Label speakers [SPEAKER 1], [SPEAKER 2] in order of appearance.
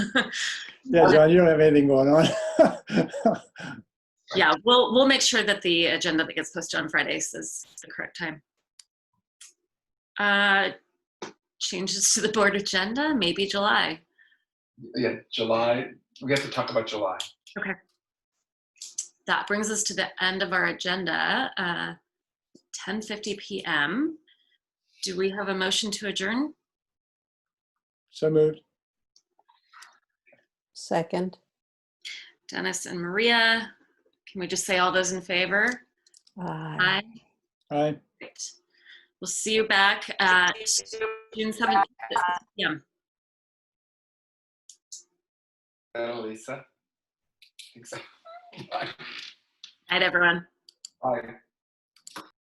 [SPEAKER 1] Yeah, John, you don't have anything going on.
[SPEAKER 2] Yeah, we'll, we'll make sure that the agenda that gets posted on Fridays is the correct time. Uh Changes to the board agenda, maybe July.
[SPEAKER 3] Yeah, July, we have to talk about July.
[SPEAKER 2] That brings us to the end of our agenda, uh, 10:50 PM. Do we have a motion to adjourn?
[SPEAKER 1] So moved.
[SPEAKER 4] Second.
[SPEAKER 2] Dennis and Maria, can we just say all those in favor?
[SPEAKER 4] Aye.
[SPEAKER 2] Aye.
[SPEAKER 1] Aye.
[SPEAKER 2] Great. We'll see you back at June 17th. at 6 p.m.
[SPEAKER 3] Uh, Lisa? Thanks. Bye.
[SPEAKER 2] Night, everyone.
[SPEAKER 3] Bye.